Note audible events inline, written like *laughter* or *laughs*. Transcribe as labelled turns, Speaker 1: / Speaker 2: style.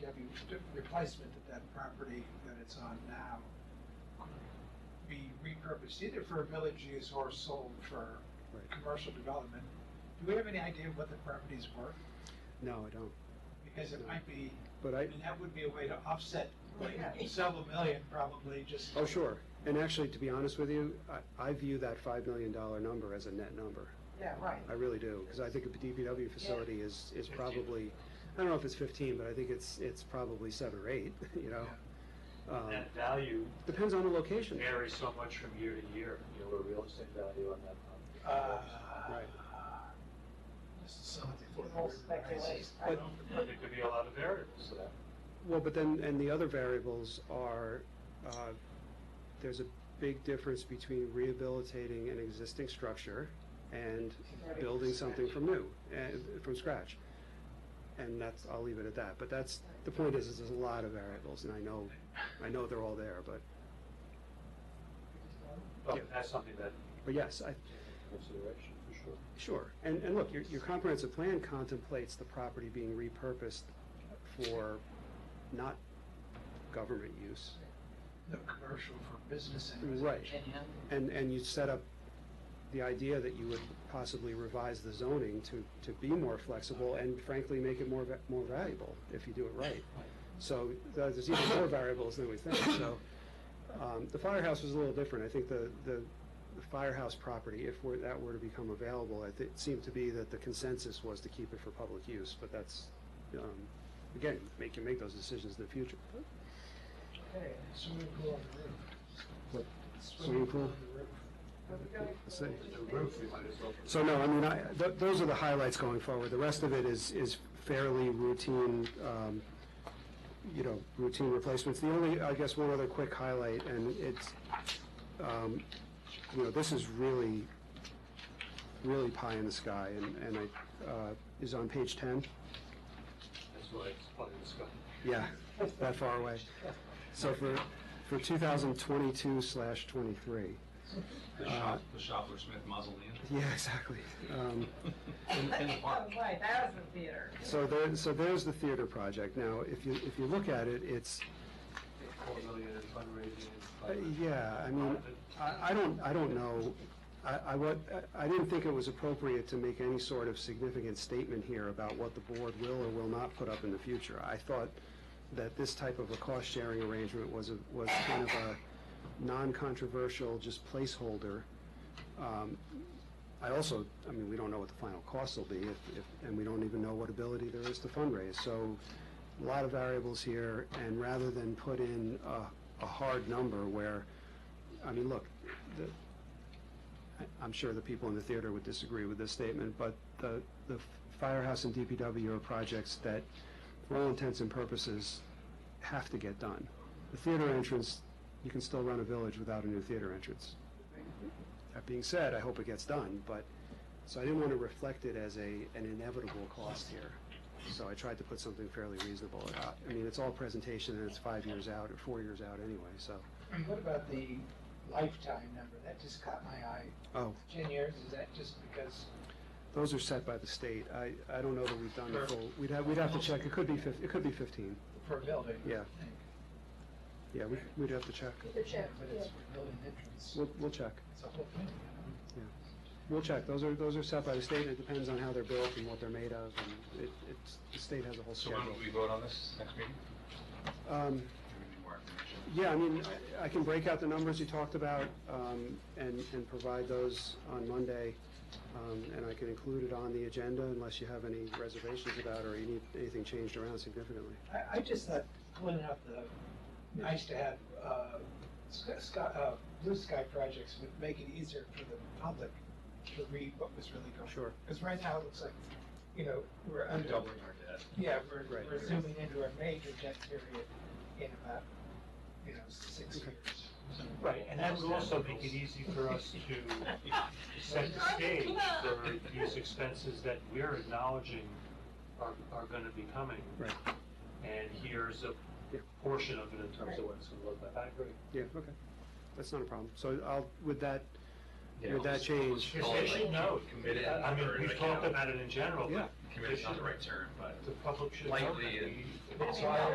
Speaker 1: the replacement of that property that it's on now be repurposed either for village use or sold for
Speaker 2: Right.
Speaker 1: commercial development. Do we have any idea what the property's worth?
Speaker 2: No, I don't.
Speaker 1: Because it might be,
Speaker 2: But
Speaker 1: I
Speaker 2: I,
Speaker 1: mean, that would be a way to offset, like, several million probably, just. uh,
Speaker 2: oh, sure. And actually, to be honest with you, I, I view that $5 million number as a net number.
Speaker 3: Yeah, right.
Speaker 2: I really do, because I think a DPW facility is, is probably, I don't know if it's 15, but I think it's, it's probably seven or eight, *laughs* you know? Um,
Speaker 4: That value
Speaker 2: Depends on the location.
Speaker 4: varies so much from year to year, you know, a real estate value on that
Speaker 1: Uh,
Speaker 2: Right.
Speaker 1: This is something for the
Speaker 3: People
Speaker 1: river
Speaker 3: speculate,
Speaker 1: rises.
Speaker 3: right?
Speaker 4: property. There could be a lot of variables to that.
Speaker 2: Well, but then, and the other variables are, uh, there's a big difference between rehabilitating an existing structure and building something from new, and, from scratch. And that's, I'll leave it at that, but that's, the point is, is there's a lot of variables, and I know, I know they're all there, but, Yeah.
Speaker 4: But that's something that
Speaker 2: but yes, I,
Speaker 4: consideration for sure.
Speaker 2: Sure, and, and look, your, your comprehensive plan contemplates the property being repurposed for not government use.
Speaker 1: No commercial for business and.
Speaker 2: Right,
Speaker 3: Virginia.
Speaker 2: and, and you set up the idea that you would possibly revise the zoning to, to be more flexible and frankly, make it more, va- more valuable if you do it right. So uh, there's there's even more variables than we think, so, um, the firehouse was a little different. I think the, the the firehouse property, if were- that were to become available, I thi- it seemed to be that the consensus was to keep it for public use, but that's, um, again, make, you make those decisions in the future.
Speaker 1: Okay, swimming pool on the roof.
Speaker 2: What?
Speaker 1: Swimming
Speaker 2: Swimming
Speaker 1: pool on
Speaker 2: pool?
Speaker 1: the roof.
Speaker 2: Let's see.
Speaker 4: The roof, we might as well.
Speaker 2: So no, I mean, I, th- those are the highlights going forward. The rest of it is, is fairly routine, um, you know, routine replacements. The only, I guess, one other quick highlight, and it's, um, you know, this is really, really pie in the sky, and, and I, uh, is on page ten.
Speaker 4: That's why it's part of this guy.
Speaker 2: Yeah, that far away. So for, for two thousand twenty-two slash twenty-three.
Speaker 5: The
Speaker 2: Uh,
Speaker 5: shop, the Shopler Smith mausoleum.
Speaker 2: Yeah, exactly. Um,
Speaker 5: In, in the park.
Speaker 3: Right, that was the theater.
Speaker 2: So there, so there's the theater project. Now, if you, if you look at it, it's,
Speaker 4: Four million in fundraising.
Speaker 2: uh, yeah, I mean, I, I don't, I don't know. I, I what, I didn't think it was appropriate to make any sort of significant statement here about what the board will or will not put up in the future. I thought that this type of a cost-sharing arrangement was a, was kind of a non-controversial, just placeholder. Um, I also, I mean, we don't know what the final costs will be, if, if, and we don't even know what ability there is to fundraise. So, a lot of variables here, and rather than put in a, a hard number where, I mean, look, the, I- I'm sure the people in the theater would disagree with this statement, but the, the firehouse and DPW are projects that, for all intents and purposes, have to get done. The theater entrance, you can still run a village without a new theater entrance. That being said, I hope it gets done, but, so I didn't want to reflect it as a, an inevitable cost here. So I tried to put something fairly reasonable. Uh, I mean, it's all presentation, and it's five years out, or four years out anyway, so,
Speaker 1: And what about the lifetime number? That just caught my eye.
Speaker 2: oh,
Speaker 1: Ten years, is that just because?
Speaker 2: Those are set by the state. I, I don't know that we've done the full, we'd have, we'd have to check. It could be fif, it could be fifteen.
Speaker 1: For a building? I
Speaker 2: Yeah.
Speaker 1: think.
Speaker 2: Yeah, we, we'd have to check.
Speaker 3: The check,
Speaker 1: But it's for building entrance.
Speaker 2: We'll, we'll check.
Speaker 1: It's a whole thing.
Speaker 2: We'll check. Those are, those are set by the state. It depends on how they're built and what they're made of, and it, it's, the state has a whole
Speaker 5: So when
Speaker 2: schedule.
Speaker 5: will we vote on this next meeting?
Speaker 2: Um,
Speaker 5: Do we need more information?
Speaker 2: yeah, I mean, I, I can break out the numbers you talked about, um, and, and provide those on Monday. Um, and I can include it on the agenda unless you have any reservations about, or you need anything changed around significantly.
Speaker 1: I, I just thought pulling out the, nice to have, uh, sky, sky- uh, blue sky projects would make it easier for the public to read what was really going on.
Speaker 2: Sure.
Speaker 1: Because right now it looks like, you know, we're under.
Speaker 5: Doubling our debt.
Speaker 1: Yeah, we're,
Speaker 2: Right.
Speaker 1: we're zooming into a major debt period in about, you know, six years.
Speaker 4: Right, and that would also make it easy for us
Speaker 2: *laughs*
Speaker 4: to set the stage for these expenses that we're acknowledging are, are gonna be coming.
Speaker 2: Right.
Speaker 4: And here's a portion of it in terms of what it's gonna look like. I agree.
Speaker 2: Yeah, okay. That's not a problem. So I'll, with that,
Speaker 5: Yeah.
Speaker 2: with that change,
Speaker 4: Yes, they should know.
Speaker 5: Committed
Speaker 4: I I mean,
Speaker 5: or,
Speaker 4: we've
Speaker 5: like,
Speaker 4: talked
Speaker 5: you know,
Speaker 4: about it in general,
Speaker 2: Yeah.
Speaker 4: but
Speaker 5: Committed's not the right term, but.
Speaker 4: the public should know.
Speaker 5: Lightly
Speaker 4: that
Speaker 5: and-
Speaker 4: we-
Speaker 3: So I-